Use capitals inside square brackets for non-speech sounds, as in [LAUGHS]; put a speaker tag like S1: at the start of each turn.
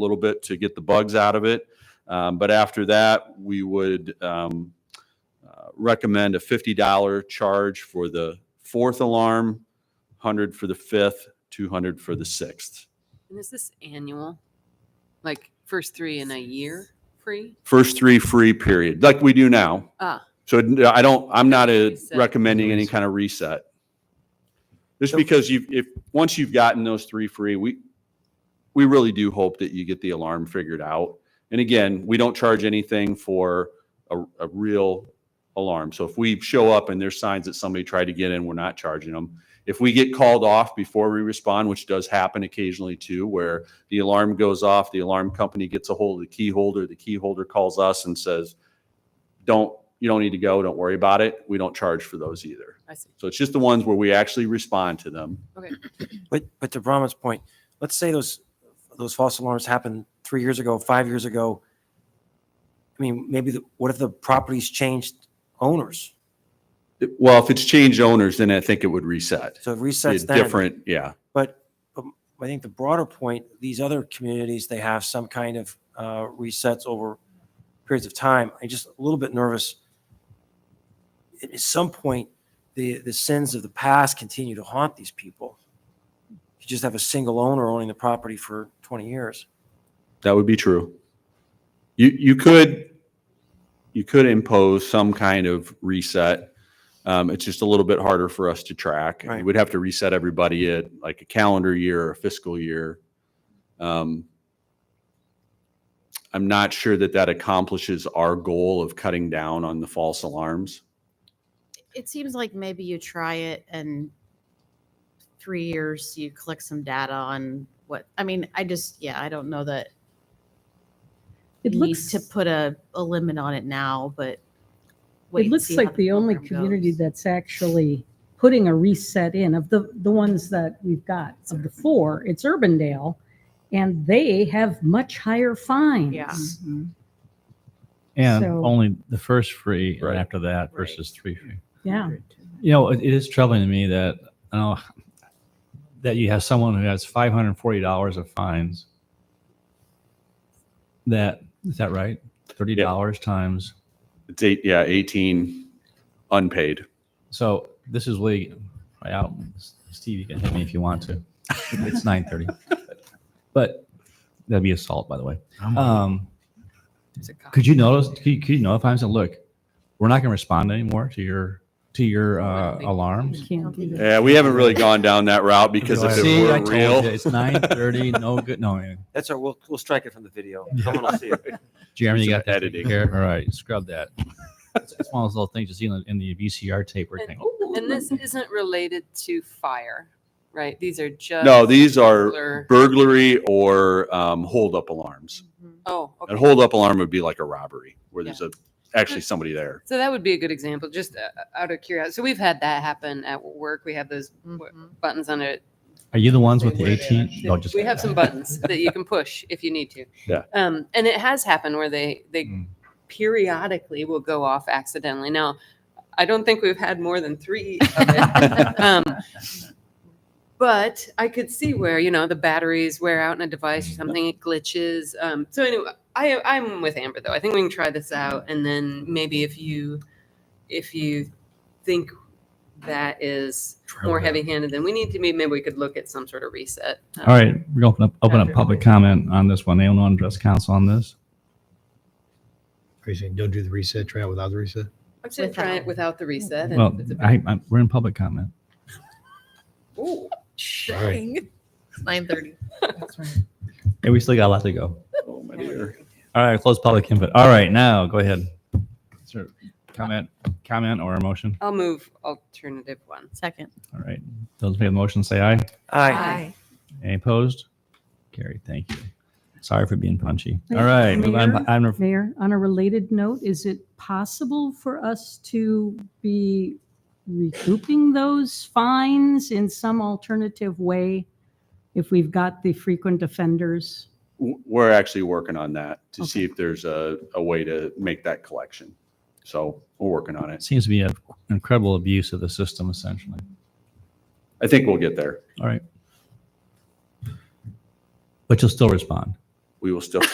S1: little bit to get the bugs out of it. Um, but after that, we would um, uh, recommend a $50 charge for the fourth alarm, 100 for the fifth, 200 for the sixth.
S2: And is this annual? Like first three in a year free?
S1: First three free period, like we do now.
S2: Ah,
S1: So I don't, I'm not uh,
S2: Reset.
S1: recommending any kind of reset. Just because you, if, once you've gotten those three free, we, we really do hope that you get the alarm figured out. And again, we don't charge anything for a, a real alarm. So if we show up and there's signs that somebody tried to get in, we're not charging them. If we get called off before we respond, which does happen occasionally too, where the alarm goes off, the alarm company gets a hold of the key holder, the key holder calls us and says, don't, you don't need to go, don't worry about it. We don't charge for those either.
S2: I see.
S1: So it's just the ones where we actually respond to them.
S3: But but to Brahma's point, let's say those those false alarms happened three years ago, five years ago. I mean, maybe the, what if the property's changed owners?
S1: It- Well, if it's changed owners, then I think it would reset.
S3: So it
S1: Be a
S3: resets then.
S1: Different, yeah.
S3: But, but I think the broader point, these other communities, they have some kind of uh, resets over periods of time. I'm just a little bit nervous. At at some point, the, the sins of the past continue to haunt these people. You just have a single owner owning the property for 20 years.
S1: That would be true. You, you could, you could impose some kind of reset. Um, it's just a little bit harder for us to track.
S3: Right.
S1: We would have to reset everybody at like a calendar year or a fiscal year. Um, I'm not sure that that accomplishes our goal of cutting down on the false alarms.
S4: it seems like maybe you try it and three years you collect some data on what i mean i just yeah i don't know that
S5: It
S4: you
S5: looks,
S4: need to put a, a limit on it now but wait
S5: it
S4: and
S5: looks
S4: see how
S5: like the only
S4: program
S5: community
S4: goes.
S5: that's actually putting a reset in of the, the ones that we've got of the four, it's Urbandale. And they have much higher fines.
S4: Yeah.
S6: And
S5: So-
S6: only the first free and
S1: Right.
S6: after that
S4: Right.
S6: versus three free.
S5: Yeah.
S6: You know, it, it is troubling to me that uh, that you have someone who has five hundred forty dollars of fines. That is that right? Thirty dollars times.
S1: It's eight, yeah, 18 unpaid.
S6: So this is really. I don't- Steve, you can hit me if you want to. It's nine thirty, but that'd be assault, by the way. Um,
S2: there's a cop.
S6: could you notice? Could you, could you notify him? and Say, look, we're not going to respond anymore to your to your uh, alarms.
S5: Can't do that.
S1: Yeah, we haven't really gone down that route because
S6: [LAUGHS]
S1: if
S6: See,
S1: it were
S6: I told
S1: real.
S6: you,
S1: [LAUGHS]
S6: it's nine thirty.
S2: [LAUGHS]
S6: no good. No, yeah.
S3: That's our, we'll, we'll strike it from the video. Someone will see it.
S6: Jeremy, you
S1: Some
S6: got that
S1: editing.
S6: here. All right, scrub that. It's it's one of those little things you see in the, in the VCR tape or
S2: And-
S6: thing.
S2: And this isn't related to fire, right? These are just.
S1: No, these are
S2: regular-
S1: burglary or um, holdup alarms.
S4: Mhm.
S2: Oh,
S1: An
S2: okay.
S1: holdup alarm would be like a robbery where there's a actually somebody there.
S2: So that would be a good example, just uh, out of curiosity. So we've had that happen at work. We have those w-
S4: Mhm.
S2: buttons on it.
S6: Are you the ones with the eighteen? No, just
S2: We have some buttons that you can push if you need to.
S1: Yeah.
S2: Um, and it has happened where they, they
S6: Mm.
S2: periodically will go off accidentally. Now, I don't think we've had more than three of it.
S6: [LAUGHS]
S2: um, but I could see where you know the batteries wear out in a
S6: Mm,
S2: device or something, it glitches. Um, so anyway, I, I'm with Amber though. I think we can try this out, and then maybe if you if you think that is more heavy-handed than we need to be, maybe we could look at some sort of reset. Um,
S6: All right, we're gonna open up open up public comment on this one. They don't want to address council on this.
S7: Are you saying don't do the reset, try out without the reset?
S2: I'm saying try it without the reset. and
S6: Well,
S2: it's a-
S6: I, I, we're in public comment.
S2: Ooh.
S7: Sorry.
S4: it's 930
S6: And we still got a lot to go.
S1: Oh, my
S2: dear.
S6: All right, close public input. All right, now go ahead. Sir, Comment, comment or a motion?
S2: I'll move alternative one.
S4: second
S6: All right, those in favor of the motion say aye.
S3: Aye.
S6: Any opposed? Carried, thank you. Sorry for being punchy. All right, move on.
S5: Mayor?
S6: Item number
S5: Mayor, on a related note, is it possible for us to be recouping those fines in some alternative way? If we've got the frequent offenders?
S1: W- We're actually working on that to see if there's a, a way to make that collection. So we're working on
S6: It
S1: it.
S6: seems to be an incredible abuse of the system, essentially.
S1: I think we'll get there.
S6: All right. But you'll still respond.
S1: we will still